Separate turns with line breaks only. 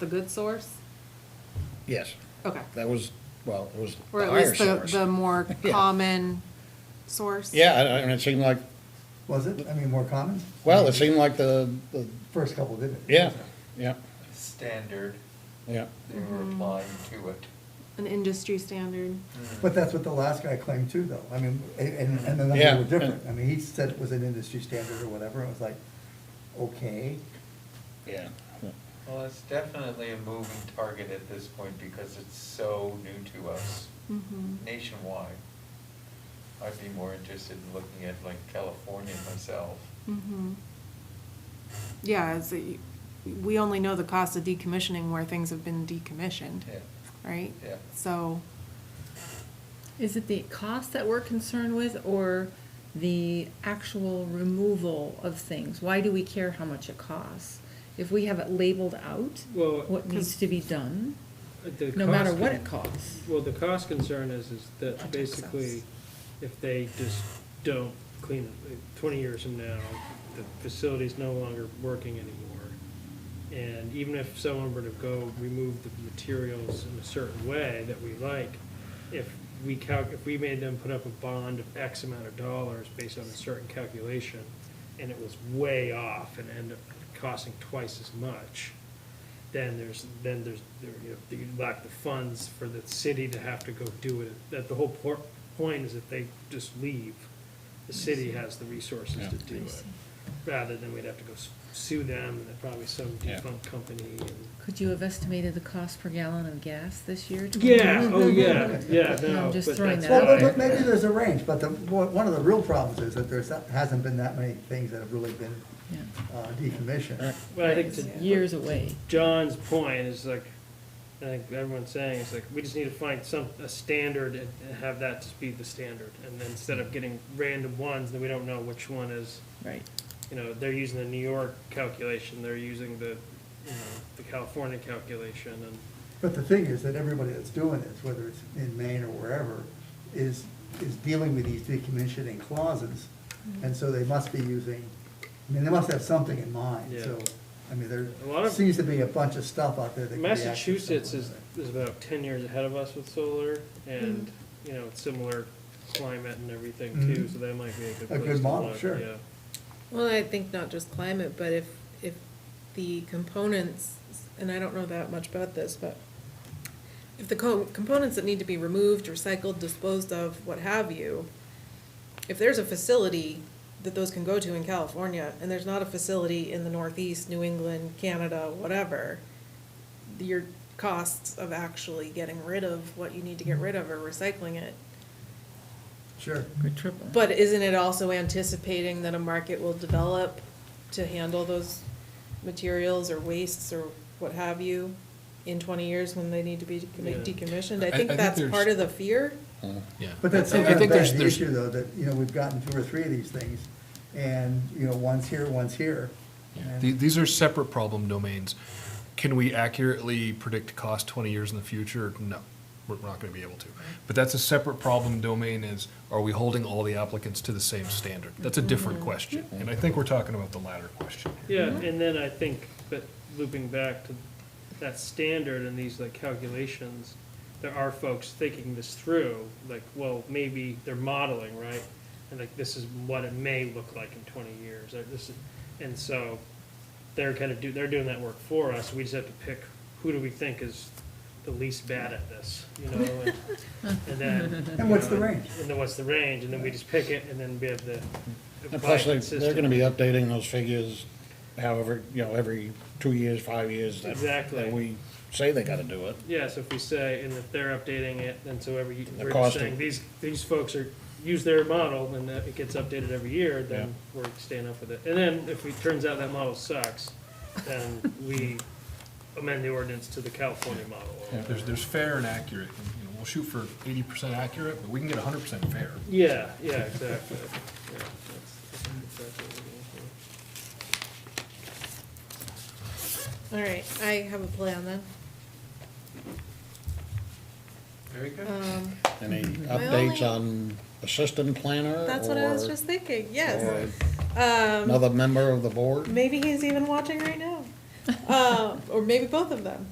the good source?
Yes,
Okay.
that was, well, it was
Or
the
at
higher
least the,
source.
the more
Yeah.
common source?
Yeah, I- I- and it seemed like,
Was it? I mean, more common?
well, it seemed like the, the,
First couple did it.
yeah, yeah,
standard,
yeah.
they were applying to it.
An industry standard?
But that's what the last guy claimed too, though. I mean, a- and, and the
Yeah.
numbers were different. I mean, he said it was an industry standard or whatever. It was like, okay.
Yeah.
Well, it's definitely a moving target at this point because it's so new to us
Mm-hmm.
nationwide. I'd be more interested in looking at like California myself.
Mm-hmm. Yeah, it's, a- we only know the cost of decommissioning where things have been decommissioned,
Mm-hmm.
Yeah,
right?
Yeah.
So,
Is it the cost that we're concerned with or the actual removal of things? Why do we care how much it costs? If we have it labeled out,
Well,
what needs to be done,
the
no matter
cost
what
con-
it costs?
Well, the cost concern is, is that
Contact
basically,
us.
if they just don't clean it, like, twenty years from now, the facility's no longer working anymore. And even if someone were to go remove the materials in a certain way that we like, if we calc, if we made them put up a bond of X amount of dollars based on a certain calculation, and it was way off and ended up costing twice as much, then there's, then there's, there, you know, you lack the funds for the city to have to go do it. That the whole por- point is if they just leave, the city has the resources to do it. Rather than we'd have to go s- sue them, and they're probably some
Yeah.
defunct company and.
Could you have estimated the cost per gallon of gas this year?
Yeah, oh, yeah, yeah,
No,
no,
I'm just
but
throwing
that's
that
Well, but-
why,
but maybe there's a range, but the, one one of the real problems is that there's, hasn't been that many things that have really been
Yeah.
uh, decommissioned.
but I think
It's
to
years away.
John's point is like, I think everyone's saying, is like, we just need to find some, a standard and and have that just be the standard. And then instead of getting random ones, then we don't know which one is,
Right.
you know, they're using the New York calculation, they're using the, you know, the California calculation and.
But the thing is that everybody that's doing this, whether it's in Maine or wherever, is, is dealing with these decommissioning clauses.
Mm-hmm.
And so they must be using, I mean, they must have something in mind,
Yeah.
so, I mean,
A lot
there
of-
seems to be a bunch of stuff out there that could be active
Massachusetts is,
somewhere.
is about ten years ahead of us with solar and, you know, it's similar climate and everything too,
Mhm.
so that might be a good
A
place
good
to
model,
look,
sure.
yeah.
Well, I think not just climate, but if, if the components, and I don't know that much about this, but if the co- components that need to be removed, recycled, disposed of, what have you, if there's a facility that those can go to in California, and there's not a facility in the Northeast, New England, Canada, whatever, your costs of actually getting rid of what you need to get rid of or recycling it
Sure.
Could triple.
but isn't it also anticipating that a market will develop to handle those materials or wastes or what have you in twenty years when they need to be
Yeah.
decommissioned? I
I- I
think
think
that's
there's-
part of the fear.
Yeah.
But that's
I- I
sometimes
think there's-
that's the
there's-
issue, though, that, you know, we've gotten two or three of these things, and, you know, one's here, one's here. and-
The- These are separate problem domains. Can we accurately predict cost 20 years in the future? No, we're not going to be able to. But that's a separate problem domain is, are we holding all the applicants to the same standard? That's a different question. And I think we're talking about the latter question here.
Yeah, and then I think, but looping back to that standard and these like calculations, there are folks thinking this through, like, well, maybe they're modeling, right? And like, this is what it may look like in twenty years, or this, is- and so they're kind of do, they're doing that work for us, we just have to pick who do we think is the least bad at this, you know? and- And then.
And what's the
you know,
range?
And then what's the range, and then we just pick it, and then we have the.
And plus,
apply
they,
it
they're gonna be
consistently.
updating those figures however, you know, every two years, five years. that-
Exactly.
That we say they gotta do it.
Yeah, so if we say, and if they're updating it, then so every,
The
we're just
cost of-
saying, these, these folks are, use their model, and that it gets updated every year, then we're staying up with it. And then if it turns out that model sucks, then we amend the ordinance to the California model. or-
There's, there's fair and accurate. and, You know, we'll shoot for 80% accurate, but we can get 100% fair.
Yeah, yeah, exactly. Yeah, that's- that's exactly what we're going for.
All right, I have a plan then.
Very good.
Um,
Any
Mm-hmm.
My
updates
only-
on assistant planner?
that's what I was
or-
just thinking,
or
yes. Um,
Another member of the board?
Maybe he's even watching right now, uh, Um, or maybe both of them.